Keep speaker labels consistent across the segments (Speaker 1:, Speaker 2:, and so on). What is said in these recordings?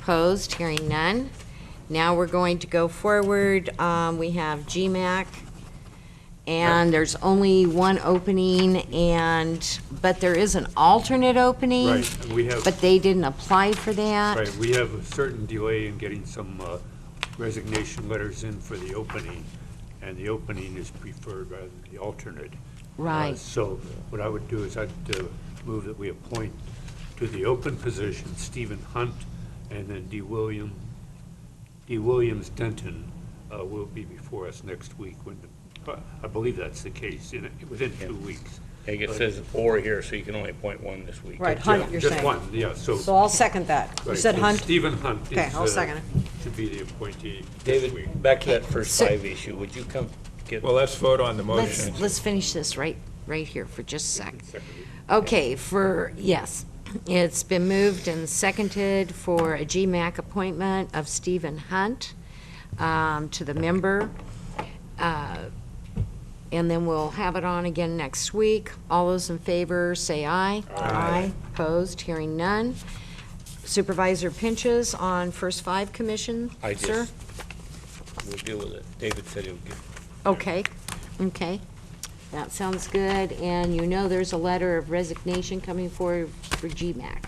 Speaker 1: Opposed? Hearing none. Now we're going to go forward. Um, We have GMAC, and there's only one opening, and, but there is an alternate opening.
Speaker 2: Right, and we have-
Speaker 1: But they didn't apply for that.
Speaker 2: Right, we have a certain delay in getting some uh, resignation letters in for the opening, and the opening is preferred rather than the alternate. Uh,
Speaker 1: Right.
Speaker 2: So what I would do is I'd uh, move that we appoint to the open position Stephen Hunt and then D. William, D. Williams Denton uh, will be before us next week when, the- I believe that's the case, in, within two weeks.
Speaker 3: I think it says or here, so you can only appoint one this week.
Speaker 4: Right, Hunt, you're saying.
Speaker 2: Just one, yeah, so.
Speaker 4: So I'll second that. You
Speaker 2: Right,
Speaker 4: said
Speaker 2: so
Speaker 4: Hunt?
Speaker 2: Stephen Hunt is.
Speaker 4: Okay, I'll
Speaker 2: uh,
Speaker 4: second it.
Speaker 2: Should be the appointee. this week.
Speaker 3: David, back to that first
Speaker 1: So-
Speaker 3: five issue, would you come get,
Speaker 5: Well, let's vote on the motion.
Speaker 1: Let's, let's finish this right, right here for just a sec. Okay, for, yes, it's been moved and seconded for a GMAC appointment of Stephen Hunt um, to the member. Uh, And then we'll have it on again next week. All those in favor, say aye. Aye. Opposed, hearing none. Supervisor Pinches on first five commission,
Speaker 3: I
Speaker 1: sir?
Speaker 3: just, we'll deal with it. David said he'll get,
Speaker 1: Okay, okay. That sounds good, and you know there's a letter of resignation coming forward for GMAC.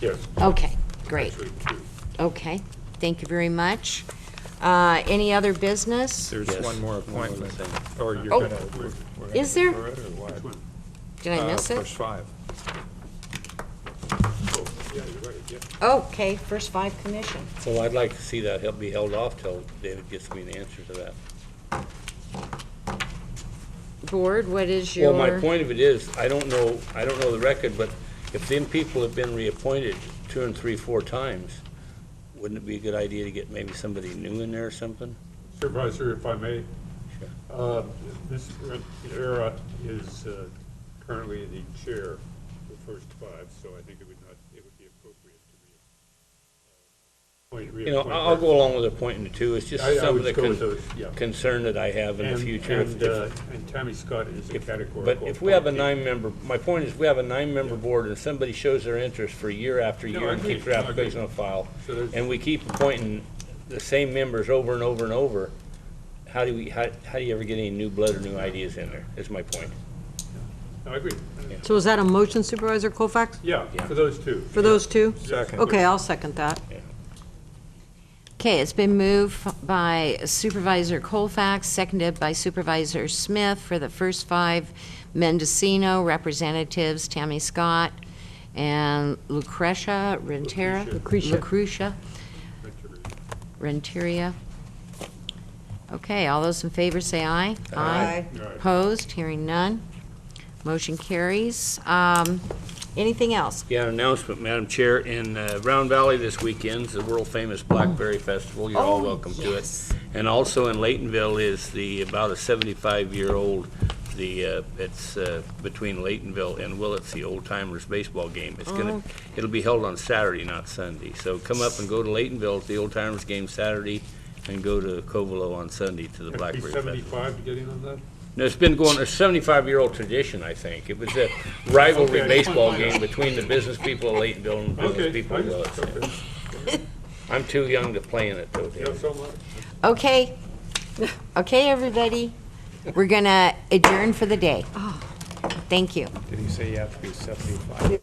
Speaker 2: Yes.
Speaker 1: Okay, great,
Speaker 2: actually, two.
Speaker 1: okay, thank you very much. Uh, any other business?
Speaker 5: There's
Speaker 3: Yes.
Speaker 5: one more appointment, or you're
Speaker 1: Oh.
Speaker 5: gonna. we're- we're gonna
Speaker 1: Is there?
Speaker 5: defer
Speaker 3: Uh,
Speaker 5: it, or what?
Speaker 2: Which one?
Speaker 1: Did I
Speaker 5: Uh,
Speaker 1: miss it?
Speaker 5: First five.
Speaker 2: Oh, yeah, you're right, yeah.
Speaker 1: Okay, first five commission.
Speaker 3: well, I'd like to see that, he'll be held off till David gets me an answer to that.
Speaker 1: Board, what is your?
Speaker 3: Well, my point of it is, I don't know, I don't know the record, but if them people have been reappointed two and three, four times, wouldn't it be a good idea to get maybe somebody new in there or something?
Speaker 2: Supervisor, if I may. Uh, Ms. Rivera is uh, currently the chair of the first five, so I think it would not, it would be uh, appropriate to re.
Speaker 3: You know, I- I'll go along with appointing the two, it's just
Speaker 2: I- I
Speaker 3: some
Speaker 2: would
Speaker 3: of the
Speaker 2: go with those, yeah.
Speaker 3: con- concern that I have in the future. If-
Speaker 2: And,
Speaker 3: if-
Speaker 2: uh, and Tammy Scott is a
Speaker 3: If-
Speaker 2: categorical.
Speaker 3: But if we have a
Speaker 2: appointee.
Speaker 3: nine-member, my point is, we have a nine-member board, and somebody shows their interest for year after
Speaker 2: No,
Speaker 3: year
Speaker 2: I
Speaker 3: and
Speaker 2: agree.
Speaker 3: keeps their
Speaker 2: No, I agree.
Speaker 3: application on file,
Speaker 2: So there's-
Speaker 3: and we keep appointing the same members over and over and over, how do we, how, how do you ever get any new blood or new ideas in there, is my point.
Speaker 2: I agree.
Speaker 4: So is that a motion Supervisor Colfax?
Speaker 2: Yeah,
Speaker 3: Yeah.
Speaker 2: for those two.
Speaker 4: For those two?
Speaker 5: Second.
Speaker 4: Okay, I'll second that.
Speaker 1: Okay, it's been moved by Supervisor Colfax, seconded by Supervisor Smith for the first five Mendocino representatives, Tammy Scott and Lucretia Renteria.
Speaker 4: Lucretia.
Speaker 1: Lucretia Renteria. Okay, all those in favor say aye.
Speaker 4: Aye.
Speaker 2: Aye. Aye.
Speaker 1: Opposed, hearing none. Motion carries. Um, Anything else?
Speaker 3: Yeah, an announcement, Madam Chair, in uh, Round Valley this weekend's the world-famous Blackberry Festival. You're all welcome to it. And also in Laytonville is the, about a 75-year-old, the, uh, it's uh, between Laytonville and Willits, the Old Timers baseball game. It's gonna, it'll be held on Saturday, not Sunday. So come up and go to Laytonville, to the Old Timers game Saturday, and go to Covelo on Sunday to the
Speaker 2: Be
Speaker 3: Blackberry Festival.
Speaker 2: seventy-five to get in on that?
Speaker 3: No, it's been going, a 75-year-old tradition, I think. It was a rivalry
Speaker 2: Okay.
Speaker 3: baseball game between the business people of Laytonville and the
Speaker 2: Okay.
Speaker 3: business people
Speaker 2: I
Speaker 3: of
Speaker 2: just-
Speaker 3: Willits.
Speaker 2: okay.
Speaker 3: I'm too young to play in it, though,
Speaker 2: Yeah,
Speaker 3: Dave.
Speaker 2: so much.
Speaker 1: Okay. Okay, everybody. We're going to adjourn for the day. Thank you.
Speaker 5: Did he say you have to be seventy-five?